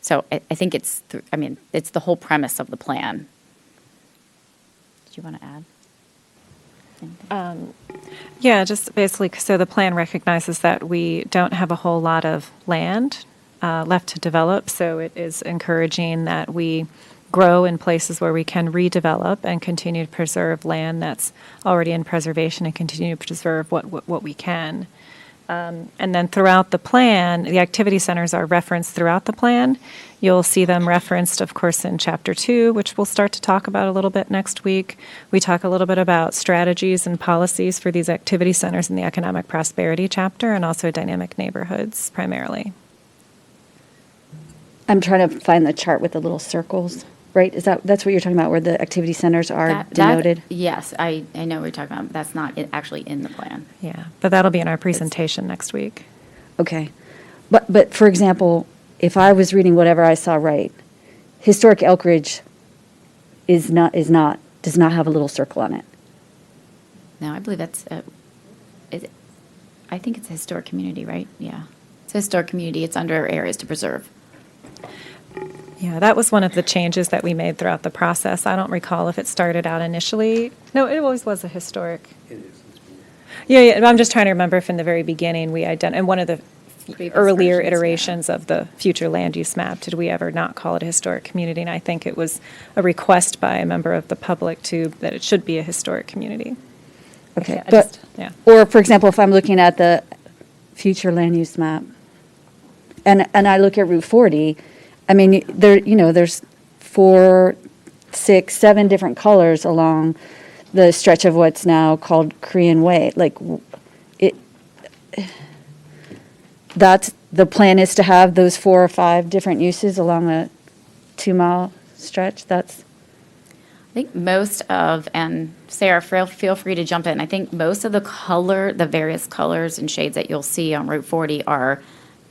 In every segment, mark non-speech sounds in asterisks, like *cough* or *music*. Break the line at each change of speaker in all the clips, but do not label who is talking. So I, I think it's, th- I mean, it's the whole premise of the plan. Do you want to add? anything?
Yeah, just basically, so the plan recognizes that we don't have a whole lot of land uh, left to develop, so it is encouraging that we grow in places where we can redevelop and continue to preserve land that's already in preservation and continue to preserve what, what what we can. And then throughout the plan, the activity centers are referenced throughout the plan. You'll see them referenced, of course, in Chapter 2, which we'll start to talk about a little bit next week. We talk a little bit about strategies and policies for these activity centers in the Economic Prosperity Chapter and also Dynamic Neighborhoods primarily.
I'm trying to find the chart with the little circles, right? Is that, that's what you're talking about, where the activity centers are
That- that-
denoted?
Yes, I, I know what you're talking about, but that's not i- actually in the plan.
Yeah, but that'll be in our presentation next week.
Okay. But, but for example, if I was reading whatever I saw right, historic Elk Ridge is not, is not, does not have a little circle on it.
No, I believe that's, uh, is, it- I think it's a historic community, right? Yeah. It's a historic community, it's under areas to preserve.
Yeah, that was one of the changes that we made throughout the process. I don't recall if it started out initially. No, it always was a historic.
It is, it's been-
Yeah, yeah, but I'm just trying to remember if in the very beginning we ident, and one of the
Previous
earlier
versions, yeah.
iterations of the future land use map, did we ever not call it a historic community? And I think it was a request by a member of the public to, that it should be a historic community.
Okay,
I
but,
just- yeah.
or for example, if I'm looking at the future land use map, and, and I look at Route 40, I mean, y- there, you know, there's four, six, seven different colors along the stretch of what's now called Korean Way, like, w- it, that's, the plan is to have those four or five different uses along a two-mile stretch, that's,
I think most of, and Sarah, feel, feel free to jump in. I think most of the color, the various colors and shades that you'll see on Route 40 are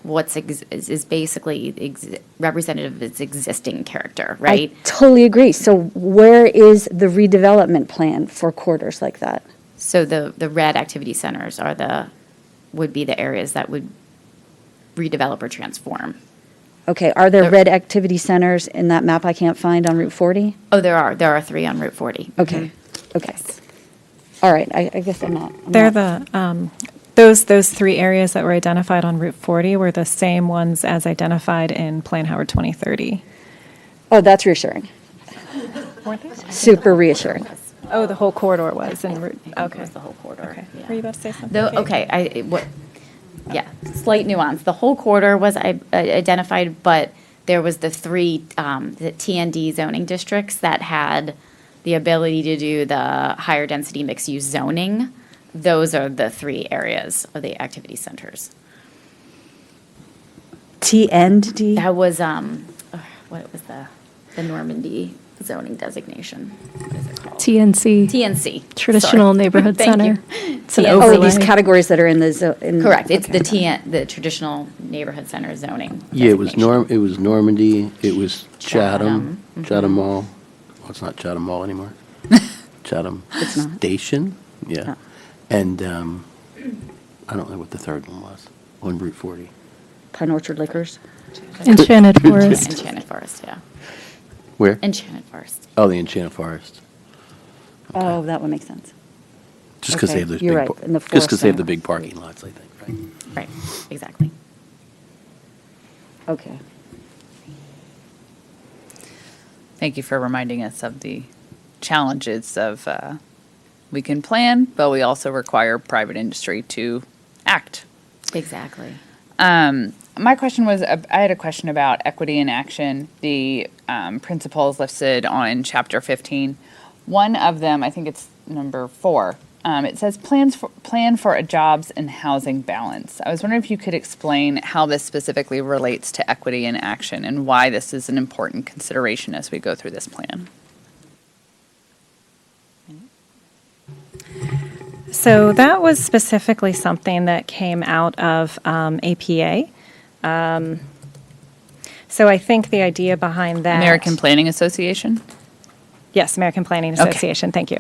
what's ex- is, is basically ex- representative of its existing character, right?
I totally agree. So where is the redevelopment plan for quarters like that?
so the the red activity centers are the would be the areas that would redevelop or transform.
Okay, are there
There-
red activity centers in that map I can't find on Route 40?
Oh, there are there are three on Route 40.
Okay, okay. All right, I, I guess I'm not. I'm
They're
not-
the, um, those, those three areas that were identified on Route 40 were the same ones as identified in Plan Howard 2030.
Oh, that's reassuring. Super reassuring.
Oh, the whole corridor was in
I
Route,
think it
okay.
was the whole corridor.
Okay.
yeah.
Were you about to say something?
Though,
Kate?
okay, I, it- what, yeah, slight nuance. The whole corridor was i- uh, identified, but there was the three, um, the TND zoning districts that had the ability to do the higher density mixed use zoning. Those are the three areas of the activity centers.
TND?
That was, um, ugh, what was the, the Normandy zoning designation? What is it called?
TNC,
TNC.
Traditional
sorry. *laughs*
Neighborhood
Thank you.
Center. It's an
TNC.
Oh,
overlay.
these categories that are in the, zo-
Mm-hmm.
in.
Correct, it's the
okay.
TN, the traditional neighborhood center zoning.
Yeah, it was
designation.
Norm, it was Normandy, it was Chatham,
mm-hmm.
Chatham,
Chatham Mall. Well, it's not Chatham
*laughs*
Mall anymore. Chatham Station, yeah.
Yeah.
And, um, I don't know what the third one was, on Route 40.
Pine Orchard Liquors.
Enchanted
*laughs*
Forest.
Enchanted Forest, yeah.
Where?
Enchanted Forest.
Oh, the Enchanted Forest.
Oh, that one makes sense.
Just because they
Okay,
have those big.
you're right,
par-
and the
Just because
forest
they have the
zone.
big parking lots, I think, right?
Right, exactly.
Okay.
Thank you for reminding us of the challenges of uh, we can plan, but we also require private industry to act.
Exactly.
Um, my question was uh, I had a question about equity in action, the um, principles listed on chapter 15. One of them, I think it's number four, um, it says plans for, plan for a jobs and housing balance. I was wondering if you could explain how this specifically relates to equity in action and why this is an important consideration as we go through this plan.
So that was specifically something that came out of um, APA. Um, So I think the idea behind that.
American Planning Association.
Yes, American Planning
Okay.
Association, thank you.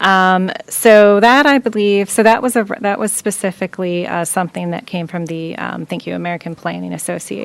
Um, So that, I believe, so that was, a that was specifically uh, something that came from the, um, thank you, American Planning Association.